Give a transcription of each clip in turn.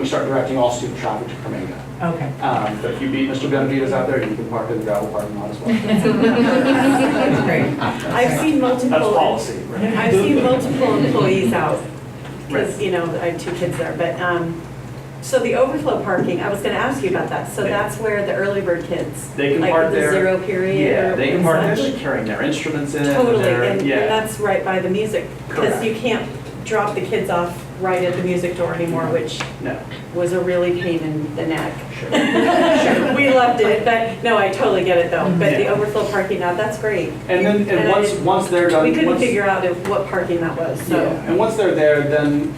we start directing all student traffic to Cremega. Okay. Um, But if you beat Mr. Benavides out there, you can park in the gravel parking lot as well. That's great. I've seen multiple. That's policy, right? I've seen multiple employees out, because, Right. you know, I have two kids there, but, um, so the overflow parking, I was gonna ask you about that, so Yeah. that's where the early bird kids. They can like park the there. Zero period. Yeah, or they can park, such. they're like carrying their instruments in. Totally, they're- and and yeah. that's right by the music, because Correct. you can't drop the kids off right at the music door anymore, Mm-hmm. which No, was a really pain in the neck. sure. We loved it, but, no, I totally get it though, but the Mm-hmm. Yeah. overflow parking, now, that's great. And then, and And I once, didn't- once they're done. We couldn't once- figure out if- what parking that was, Yeah, so. and once they're there, then,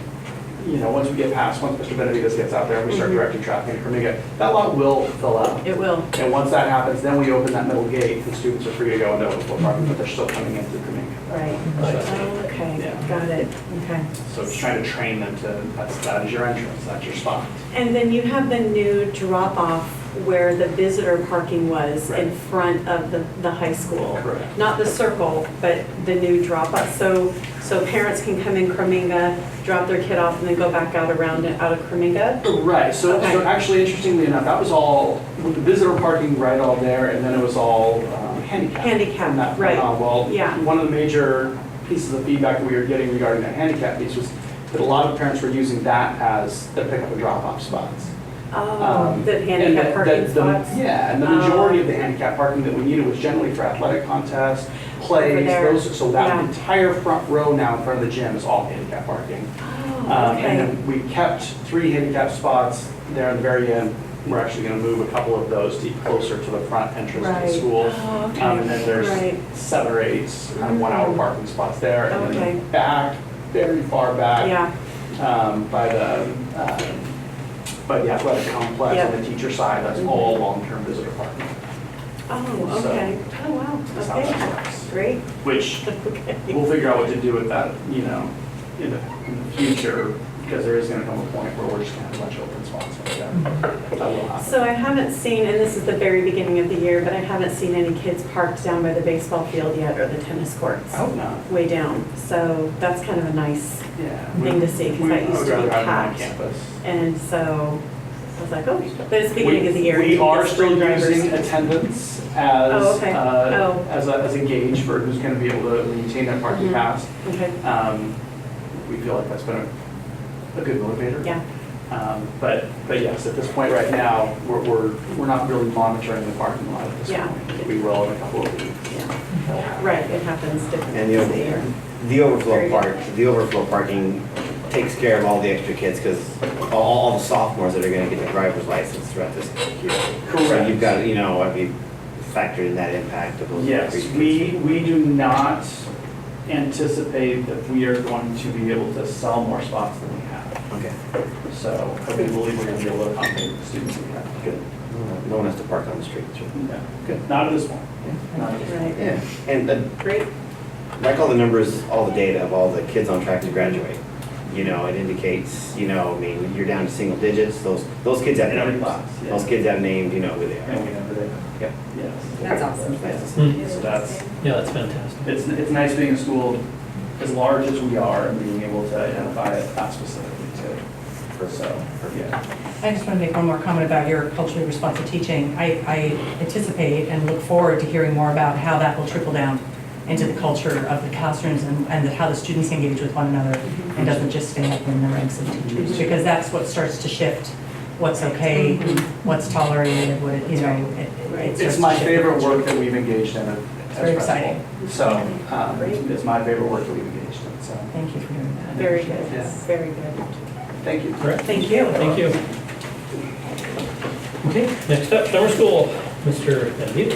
you know, once we get past, once Mr. Benavides gets out there, we start Mhm. directing traffic to Cremiga, that lot will fill up. It will. And once that happens, then we open that middle gate, and students are free to go into overflow parking, but they're still coming in through Cremiga. Right. Oh, okay, Yeah. got it, okay. So just trying to train them to, that's, that is your entrance, that's your spot. And then you have the new drop-off where the visitor parking was in Right. front of the, the high school. Correct. Not the circle, but the new drop-off. So, so parents can come in Creminga, drop their kid off, and then go back out around, it- out of Creminga? Right, so, so Okay. actually interestingly enough, that was all, with the visitor parking right all there, and then it was all um, handicap. Handicap, From that point right. on. Well, Yeah. one of the major pieces of feedback we were getting regarding that handicap piece was that a lot of parents were using that as their pickup and drop-off spots. Oh, Um, the and that- handicap parking that the- spots? Yeah, and the Oh. majority of the handicap parking that we needed was generally for athletic contests, plays, there. those, so that Yeah. entire front row now in front of the gym is all handicap parking. Oh, Um, And okay. then we kept three handicap spots there in the very end. We're actually going to move a couple of those to closer to the front entrance to Right. the school. Oh, okay. Um, And then Right. Mm. there's seven or eight kind of one-hour parking spots there. And Okay. then back, very far back Yeah, um, by the, um, by the athletic complex Yeah. on the teacher side, that's Mhm. all long-term visitor parking. oh, So- okay. Oh, That's wow, how okay, that works. great, Which okay. we'll figure out what to do with that, you know, in the, in the future, because there is gonna come a point where we're just gonna have a bunch of open spots like that. That will happen. So I haven't seen, and this is the very beginning of the year, but I haven't seen any kids parked down by the baseball field yet or the tennis courts, I hope not, way down. So that's kind of a nice, yeah. Thing to see, 'cause We- that we- used to be I would rather have packed. them on campus. and so I was like, oh, but it's the beginning of the We- year. We are It's still spring drivers. using attendance Oh, as, okay. uh, Oh. as a, as a gauge for who's gonna be able to maintain that parking Mhm. pass. Okay, Um, we feel like that's been a, a good motivator. yeah, Um, But, but yes, at this point right now, we're, we're, we're not really monitoring the parking lot at this Yeah. point. We will in a couple of weeks. yeah, right, it happens different And the, times of the year. over- the overflow park, the overflow parking takes care of all the extra kids, because all, all the sophomores that are gonna get the driver's license throughout this year. So Correct. you've got, you know, have you factored in that impact of those? Yes, increased- we, we do not anticipate that we are going to be able to sell more spots than we have. Okay. So I do believe we're going to be able to accommodate the students we have. Good. No one has to park on the street, sure. Yeah, good. Not at this point. Not at this point. Right, Yeah, and uh, great, like all the numbers, all the data of all the kids on track to graduate, you know, it indicates, you know, I mean, you're down to single digits, those, those kids have In every names. class, yeah. Those kids have named, you know who they And are. we know that, Yep. yes. Hmm. that's awesome. Nice to see. So that's, Yeah, that's fantastic. it's, it's nice being a school as large as we are and being able to identify it that specifically too. So, yeah. I just want to make one more comment about your culturally responsive teaching. I, I anticipate and look forward to hearing more about how that will trickle down into the culture of the classrooms and, and how the students engage with one another and doesn't just stay up in the ranks of teachers, because that's what starts to shift what's okay, what's tolerated, what, it- you know, it- it starts It's to my shift. favorite work that we've engaged in as principal. very exciting. So, um, it's my favorite work that we've engaged in, so, Thank you for doing that. Very good, Yeah. very good. thank you. All right, Thank you. thank you. Okay, next up, summer school, Mr. Benavides.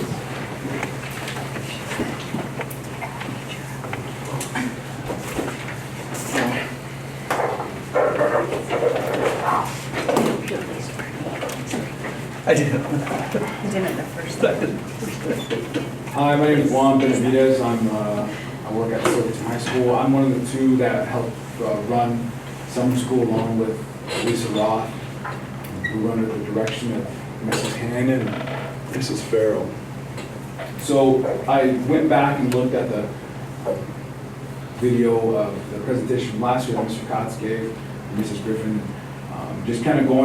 I did. Hi, my name is Juan Benavides. I'm, uh, I work at Silverton High School. I'm one of the two that helped uh, run summer school along with Lisa Roth, who run under the direction of Mrs. Hannon and Mrs. Farrell. So I went back and looked at the video of the presentation from last year that Mr. Cotts gave, and Mrs. Griffin, um, just kind of going